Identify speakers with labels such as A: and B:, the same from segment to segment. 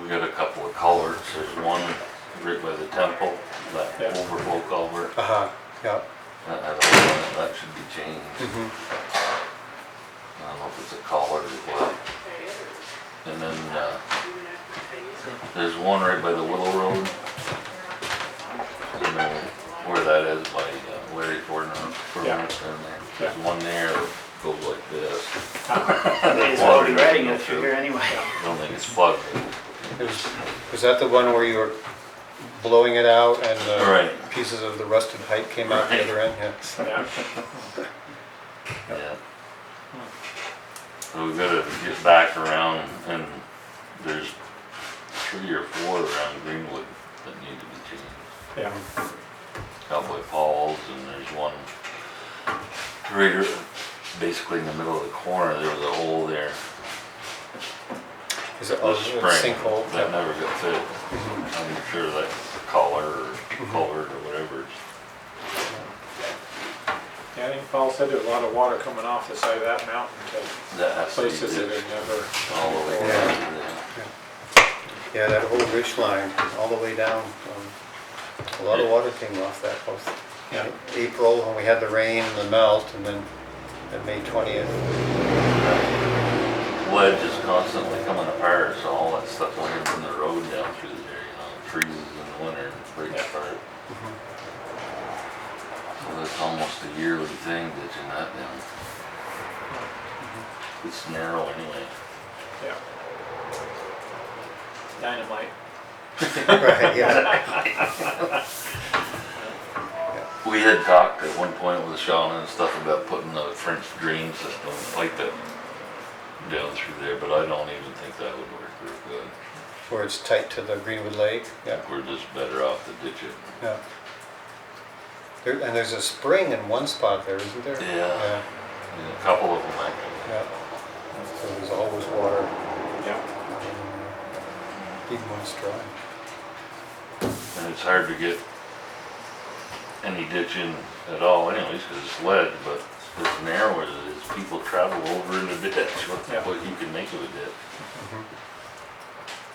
A: We got a couple of culverts, there's one right by the temple, that
B: Yeah.
A: overflow culvert,
C: Uh-huh, yeah.
A: that has a limit, that should be changed.
B: Mm-hmm.
C: mhm.
A: I don't know if it's a collar or what. And then, uh, there's one right by the Willow Road. You know where that is by uh, Larry Ford, Ford
B: Yeah.
A: and there. There's one there that goes like this.
D: May as well be writing it through here anyway.
A: I don't think it's plugged.
C: It was- Was that the one where you were blowing it out and the
A: Right.
C: pieces of the rusted pipe came out the
A: Right.
C: other end? Yeah.
B: Yeah.
A: Yeah. So we gotta get back around and there's three or four around Greenwood that need to be changed.
B: Yeah.
A: Cowboy Falls and there's one right, ar- basically in the middle of the corner, there was a hole there.
C: Is it Oh, a
A: This spring,
C: sinkhole? Mm-hmm.
A: that
C: Yeah.
A: never got fixed. I'm sure that collar or
C: Mm-hmm.
A: culvert or whatever.
B: Yeah, I think Paul said there's a lot of water coming off the side of that mountain to
A: That has to be
B: places that
A: ditched
B: have never,
A: all the way down to
C: Yeah.
A: there.
C: Yeah, that whole ridge line, all the way down. um, A lot of water came off that post.
B: Yeah.
C: April, when we had the rain, the melt, and then at May 20th.
A: ledge is constantly coming apart, so all that stuff went in from the road down through there, you know, freezes in the winter, and breaks
B: Yeah.
A: apart. So that's almost a yearly thing ditching that down. It's narrow anyway.
B: yeah. Dynamite.
C: Right, yeah.
A: We had talked at one point with Sean and stuff about putting the French drain system like that down through there, but I don't even think that would work real good.
C: Where it's tight to the Greenwood Lake, yeah.
A: We're just better off to ditch it.
C: Yeah. There, and there's a spring in one spot there, isn't there?
A: Yeah.
C: Yeah,
A: And a couple of them actually.
C: yeah. So there's always water,
B: Yeah.
C: even when it's dry.
A: And it's hard to get any ditching at all anyways, cause it's lead, but it's narrow as it is, people travel over in the ditch, what,
B: Yeah.
A: what you can make of a ditch.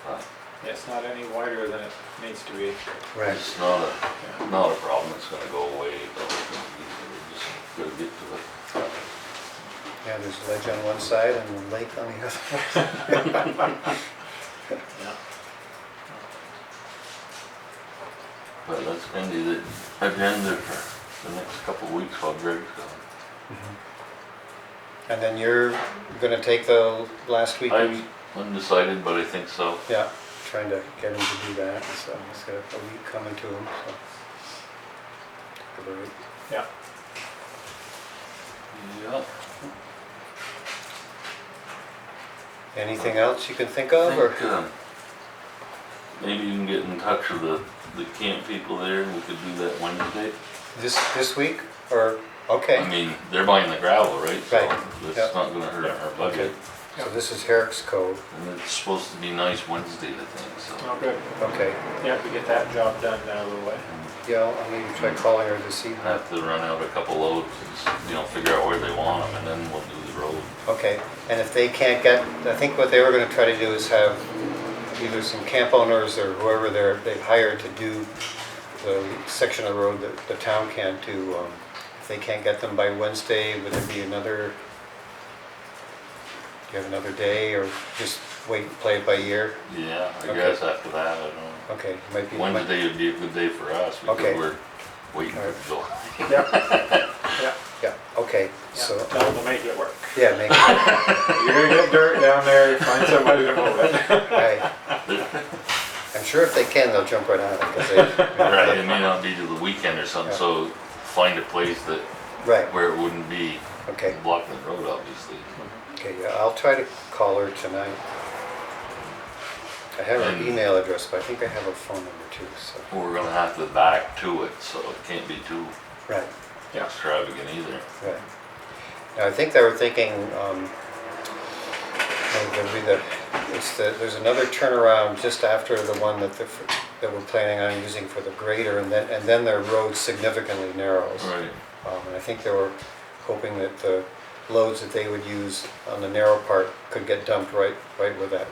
A: But
B: It's not any wider than it needs to be.
C: Right.
A: It's not a, not a problem, it's gonna go away, but it's gonna be, we just gotta get to it.
C: Yeah, there's a ledge on one side and a lake on the other.
B: Yeah.
A: But that's gonna be the agenda for the next couple of weeks while Greg's gone.
C: And then you're gonna take the last weekend?
A: I'm undecided, but I think so.
C: Yeah, trying to get him to do that, so he's got a week coming to him, so. Take a break.
B: Yeah.
A: Yeah.
C: Anything else you can think of, or?
A: think, um, Maybe you can get in touch with the, the camp people there, and we could do that Wednesday.
C: This, this week, or, okay,
A: I mean, they're buying the gravel, right? So
C: Right, yeah.
A: It's not gonna hurt our budget,
C: so this is Herrick's Cove,
A: and it's supposed to be nice Wednesday, I think, so.
B: Oh, good.
C: okay.
B: Yeah, we get that job done down a little way.
C: Yeah, I'll maybe try calling her this evening.
A: Have to run out a couple loads, and s- you know, figure out where they want them, and then we'll do the road.
C: Okay, and if they can't get, I think what they were gonna try to do is have either some camp owners or whoever they're, they've hired to do the section of the road that the town can't do. um, If they can't get them by Wednesday, would there be another, do you have another day or just wait, and play it by ear?
A: Yeah, I
C: Okay.
A: guess after that, I don't
C: Okay, might be.
A: know. Wednesday would be a good day for us, because
C: Okay.
A: we're waiting for
C: Alright.
A: July.
B: Yeah, yeah,
C: Yeah, okay, so,
B: yeah. That will make it work.
C: yeah, make, all
B: You're gonna get dirt down there, find somebody to move it.
C: right. I'm sure if they can, they'll jump right on it, 'cause they.
A: Right, it may not be till the weekend or something,
C: Yeah.
A: so find a place that,
C: Right,
A: where it wouldn't be
C: okay.
A: block the road, obviously.
C: Okay, yeah, I'll try to call her tonight. I have her
A: And-
C: email address, but I think I have her phone number too, so.
A: We're gonna have to back to it, so it can't be too
C: Right,
B: Yeah.
A: extravagant either.
C: right. Now, I think they were thinking, um, oh, there'll be the, it's the, there's another turnaround just after the one that the, that we're planning on using for the grader, and then, and then their road significantly narrows.
A: Right.
C: Um, and I think they were hoping that the loads that they would use on the narrow part could get dumped right, right with that